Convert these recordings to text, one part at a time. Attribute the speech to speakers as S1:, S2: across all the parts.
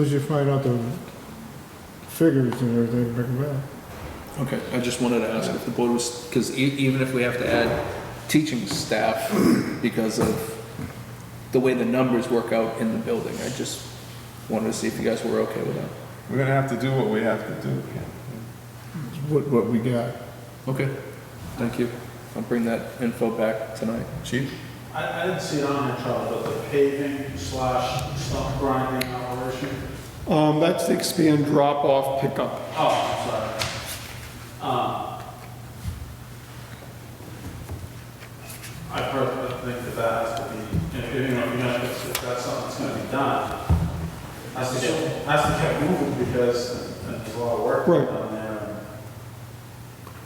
S1: As you find out the figures and everything, bring them back.
S2: Okay, I just wanted to ask if the board was, because even if we have to add teaching staff because of the way the numbers work out in the building, I just wanted to see if you guys were okay with that.
S3: We're gonna have to do what we have to do.
S1: It's What, what we got.
S2: Okay, thank you. I'll bring that info back tonight. Chief?
S4: I, I didn't see it on the chart, but the paving slash stump grinding operation.
S5: Um, that's the expand drop-off pickup.
S4: Oh, I'm sorry. Um, I personally think that that has to be, if, you know, if you guys- if that's something that's gonna be done, has to get, has to get moving because there's a lot of work
S5: Right.
S4: done there.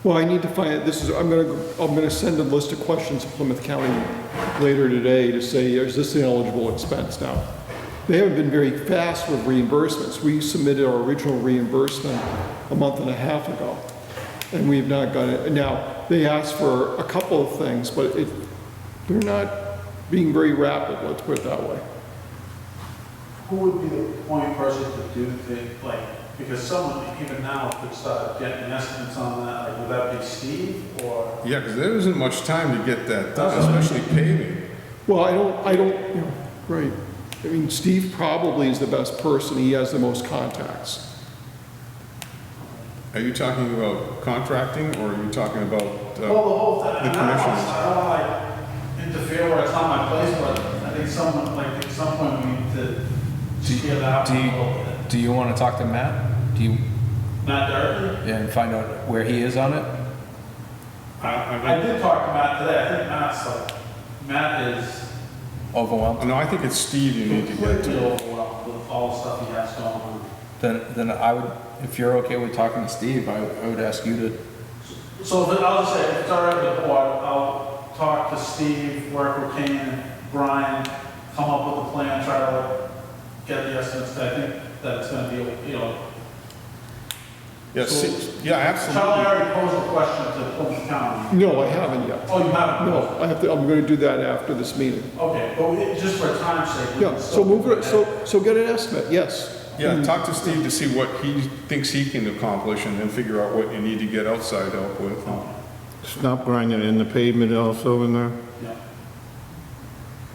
S5: Well, I need to find, this is, I'm gonna, I'm gonna send a list of questions to Plymouth County later today to say, is this an eligible expense now? They haven't been very fast with reimbursements. We submitted our original reimbursement a month and a half ago, and we've not got it. Now, they asked for a couple of things, but it, they're not being very rapid, let's put it that way.
S4: Who would be the point person to do the, like, because someone even now could start getting estimates on that, like, would that be Steve or?
S3: Yeah, because there isn't much time to get that done, especially paving.
S5: Well, I don't, I don't, you know, right. I mean, Steve probably is the best person. He has the most contacts.
S3: Are you talking about contracting or are you talking about? uh,
S4: Well, the whole thing,
S3: The
S4: and I don't,
S3: commissioners.
S4: I don't wanna, like interfere where it's not my place, but I think someone, like, at some point we need to figure that out a
S6: Do you,
S4: little bit.
S6: do you want to talk to Matt? Do you,
S4: Matt Doherty,
S6: yeah, and find out where he is on it?
S4: I did talk to Matt today, I think Matt's like, Matt is
S6: Overwhelmed?
S3: Oh, No, I think it's Steve you need to get
S4: completely
S3: to.
S4: overwhelmed with all the stuff he has going on.
S6: Then, then I would, if you're okay with talking to Steve, I, I would ask you to,
S4: So if it- I'll just say, if it's all right with the board, I'll talk to Steve, work with Kane, Brian, come up with a plan, try to like, get the estimates, I think that's gonna be, you know,
S3: Yeah, see- yeah,
S4: Charlie
S3: absolutely.
S4: already posed a question to Plymouth County.
S5: No, I haven't yet.
S4: Oh, you haven't?
S5: No, I have to, I'm gonna do that after this meeting.
S4: Okay, but we- just for time's sake. we
S5: Yeah,
S4: can
S5: so
S4: still
S5: move
S4: do
S5: it,
S4: that.
S5: so, so get an estimate, yes.
S3: Yeah, talk to Steve to see what he thinks he can accomplish and then figure out what you need to get outside help with.
S1: Stop grinding in the pavement also in there.
S4: Yeah.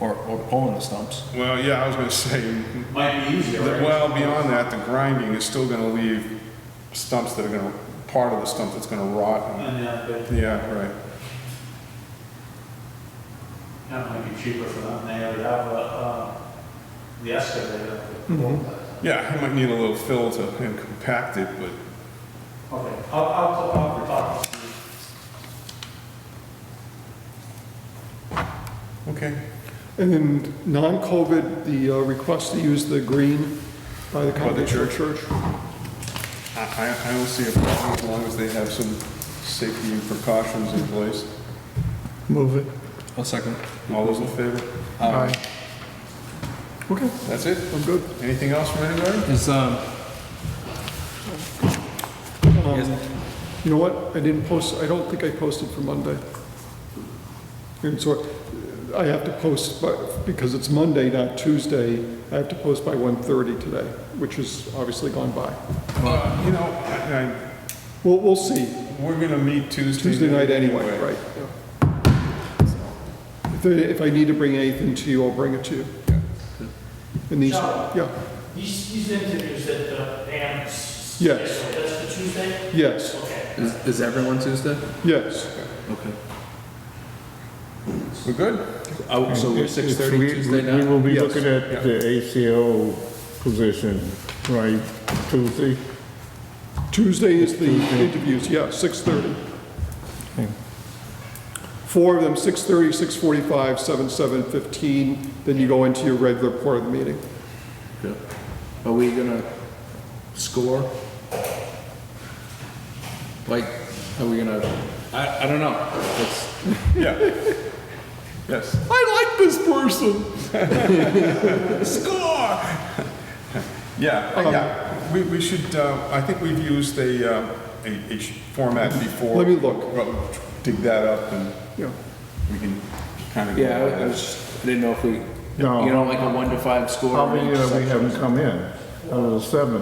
S6: or, or pulling the stumps.
S3: Well, yeah, I was gonna say,
S4: Might be easier, right?
S3: well, beyond that, the grinding is still gonna leave stumps that are gonna, part of the stump that's gonna rot.
S4: And, yeah, but
S3: Yeah, right.
S4: that might be cheaper for them, they already have, a, uh, the excavator.
S5: Mm-hmm.
S3: Yeah, it might need a little fill to and compact it, but
S4: Okay, I'll, I'll, I'll talk to Steve.
S3: Okay.
S5: And then non-COVID, the uh, request to use the green by
S3: By the
S5: the Congregational Church.
S3: I, I I don't see a problem as long as they have some safety and precautions in place.
S1: Move it.
S6: A second.
S3: All those in favor?
S6: Um,
S1: Aye.
S5: Okay,
S3: That's it?
S5: I'm good.
S3: Anything else from anybody?
S6: Is, um,
S5: Um, You know what, I didn't post, I don't think I posted for Monday. And so I have to post, but, because it's Monday, not Tuesday, I have to post by 1:30 today, which is obviously gone by.
S3: Uh, You know, I,
S5: We'll, we'll see,
S3: I, we're gonna meet Tuesday.
S5: Tuesday night anyway, right? yeah. If I- If I need to bring anything to you, I'll bring it to you. And these, yeah,
S7: These, these interviews that the
S4: uh,
S7: parents.
S5: Yes.
S7: scheduled, That's the Tuesday?
S5: yes,
S7: Okay.
S2: Is, is everyone Tuesday?
S5: yes.
S2: Okay.
S3: We're good?
S2: Oh, so we're
S1: It's-
S2: six
S1: it's-
S2: thirty
S1: we-
S2: Tuesday
S1: We
S2: night?
S1: will be
S5: Yes.
S1: looking at the ACO position, right, Tuesday?
S5: Tuesday is the interviews, yeah, 6:30. Four of them, 6:30, 6:45, 7, 7:15, then you go into your regular part of the meeting.
S2: Yeah. Are we gonna score? Like, are we gonna, I, I don't know. It's,
S3: Yeah. Yes.
S5: I like this person!
S3: Score! Yeah,
S5: Um,
S3: uh, yeah, we, we should, uh, I think we've used a, uh, a, a sh- format before.
S5: Let me look.
S3: Well, Dig that up and
S5: Yeah,
S3: we can kind of.
S2: yeah, I was, just- I didn't know if we, you
S1: No. uh,
S2: know, like a one to five score.
S1: How many
S2: range.
S1: uh, we haven't come in? out of the seven.